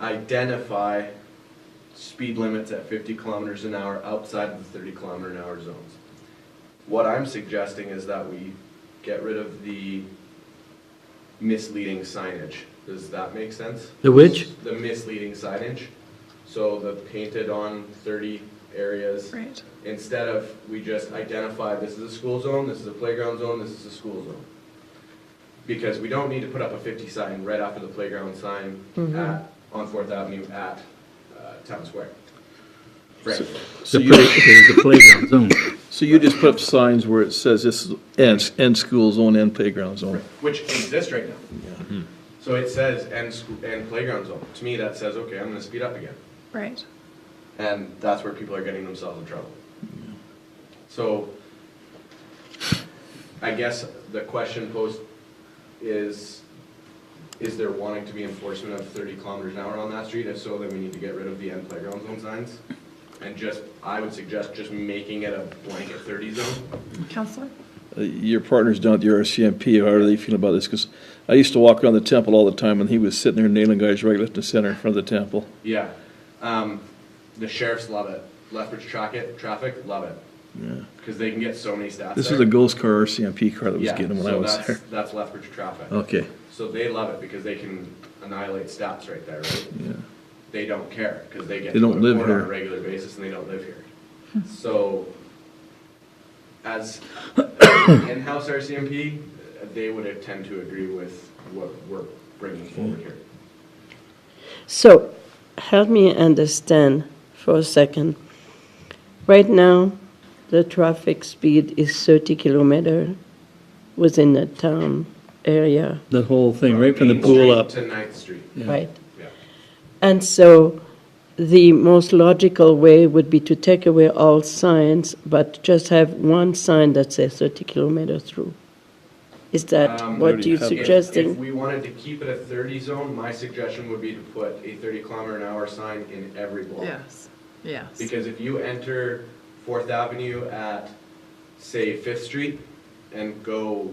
identify speed limits at fifty kilometers an hour outside of the thirty kilometer an hour zones. What I'm suggesting is that we get rid of the misleading signage. Does that make sense? The which? The misleading signage. So the painted on thirty areas Right. instead of we just identify this is a school zone, this is a playground zone, this is a school zone. Because we don't need to put up a fifty sign right after the playground sign at, on Fourth Avenue at, uh, Town Square. Frankly. So The you, play- okay, the playground zone. so you just put up signs where it says this is end, end school zone, end playground zone. which exists right now. So it says end, sc- end playground zone. To me, that says, okay, I'm gonna speed up again. Right. And that's where people are getting themselves in trouble. So I guess the question posed is, is there wanting to be enforcement of thirty kilometers an hour on that street? If so, then we need to get rid of the end playground zone signs. And just, I would suggest just making it a blanket thirty zone. Counselor? Uh, Your partners down at the RCMP, how are they feeling about this? Because I used to walk around the temple all the time and he was sitting there nailing guys right left and center in front of the temple. Yeah. Um, the sheriffs love it. Lethbridge traffic, traffic, love it. Yeah. Because they can get so many stats. This there. was a ghost car RCMP car that was yeah, getting them when so I was that's, there. That's Lethbridge traffic. Okay, So they love it because they can annihilate stats right there. Right? yeah. They don't care because they get to They don't go to live court on here. a regular basis and they don't live here. so as in-house RCMP, uh, they would tend to agree with what we're bringing Hmm. forward here. So, help me understand for a second. Right now, the traffic speed is 30 kilometer within the town area, That whole thing, right from the Main pool Street up. to Ninth Street. Yeah. right? Yeah. And so, the most logical way would be to take away all signs, but just have one sign that says 30 kilometer through. Is that Um, what you're have If, that. if suggesting? we wanted to keep it a 30 zone, my suggestion would be to put a 30 kilometer an hour sign in every block. Yes, yes. Because if you enter Fourth Avenue at, say, Fifth Street and go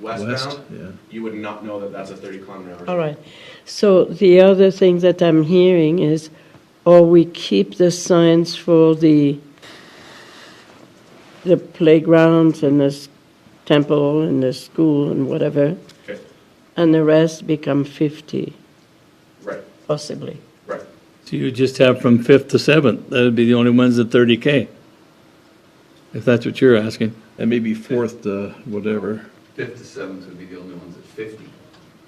West, westbound, yeah. you would not know that that's a 30 kilometer an hour. All right. So the other thing that I'm hearing is, or we keep the signs for the, the playgrounds and the s- temple and the school and whatever, Okay, and the rest become 50, Right, possibly. right. So you just have from fifth to seventh, that'd be the only ones at thirty K. If that's what you're asking. And maybe fourth, uh, whatever. Fifth to seventh would be the only ones at fifty.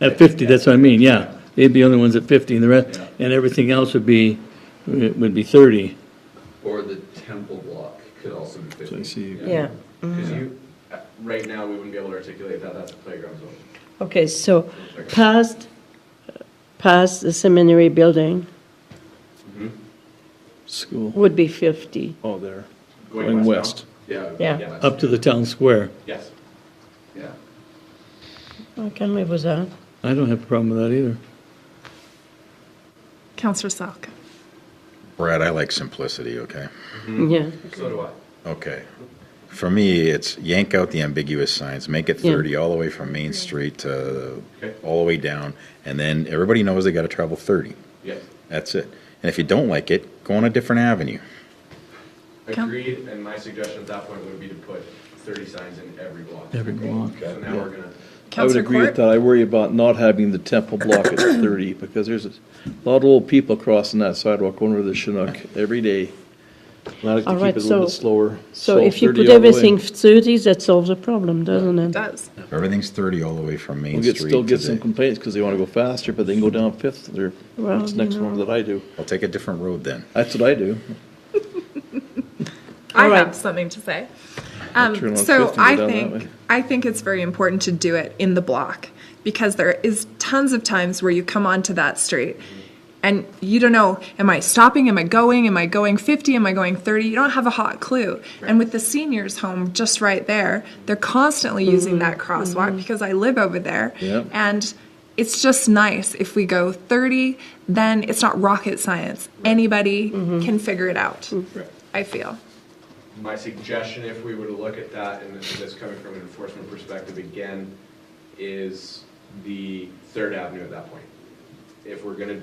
At fifty, that's what I mean, yeah. They'd be the only ones at fifty and the rest, Yeah. and everything else would be, would be thirty. Or the temple block could also be fifty. So I see. Yeah. Because you, uh, right now, we wouldn't be able to articulate that, that's a playground zone. Okay, so past, past the seminary building School. would be 50. Oh, there. Going Going westbound? west. Yeah. Yeah. west, Up to the town square. Yes. Yeah. I can live with that. I don't have a problem with that either. Counselor Salk? Brad, I like simplicity, okay? Yeah. So do I. Okay. For me, it's yank out the ambiguous signs, make it Yeah. 30 all the way from Main Street to Okay. all the way down, and then everybody knows they got to travel 30. Yes. That's it. And if you don't like it, go on a different avenue. Count- Agreed, and my suggestion at that point would be to put 30 signs in every block. Every block. So now we're gonna, I would Counselor agree with Court? that. I worry about not having the temple block at thirty, because there's a lot of old people crossing that sidewalk going over the Chinook every day. Allow it to All keep right, it a little bit so- slower. So if you 30 put all the way. everything 30, that solves the problem, doesn't it? Does. If everything's 30 all the way from Main We'll get, Street still get to some the- complaints, because they wanna go faster, but they can go down Fifth, or, Well, that's you next know. one that I do. I'll take a different road then. That's what I do. I All right. have something to say. I'll Um, turn on so fifth and go I down that think way. I think it's very important to do it in the block because there is tons of times where you come onto that street and you don't know am I stopping am I going am I going 50 am I going 30 you don't have a hot clue and with the seniors home just right there they're constantly using that crosswalk because I live over there Yep. and it's just nice if we go 30 then it's not rocket science anybody can figure it out I feel My suggestion, if we were to look at that, and this is coming from an enforcement perspective again, is the Third Avenue at that point. If we're gonna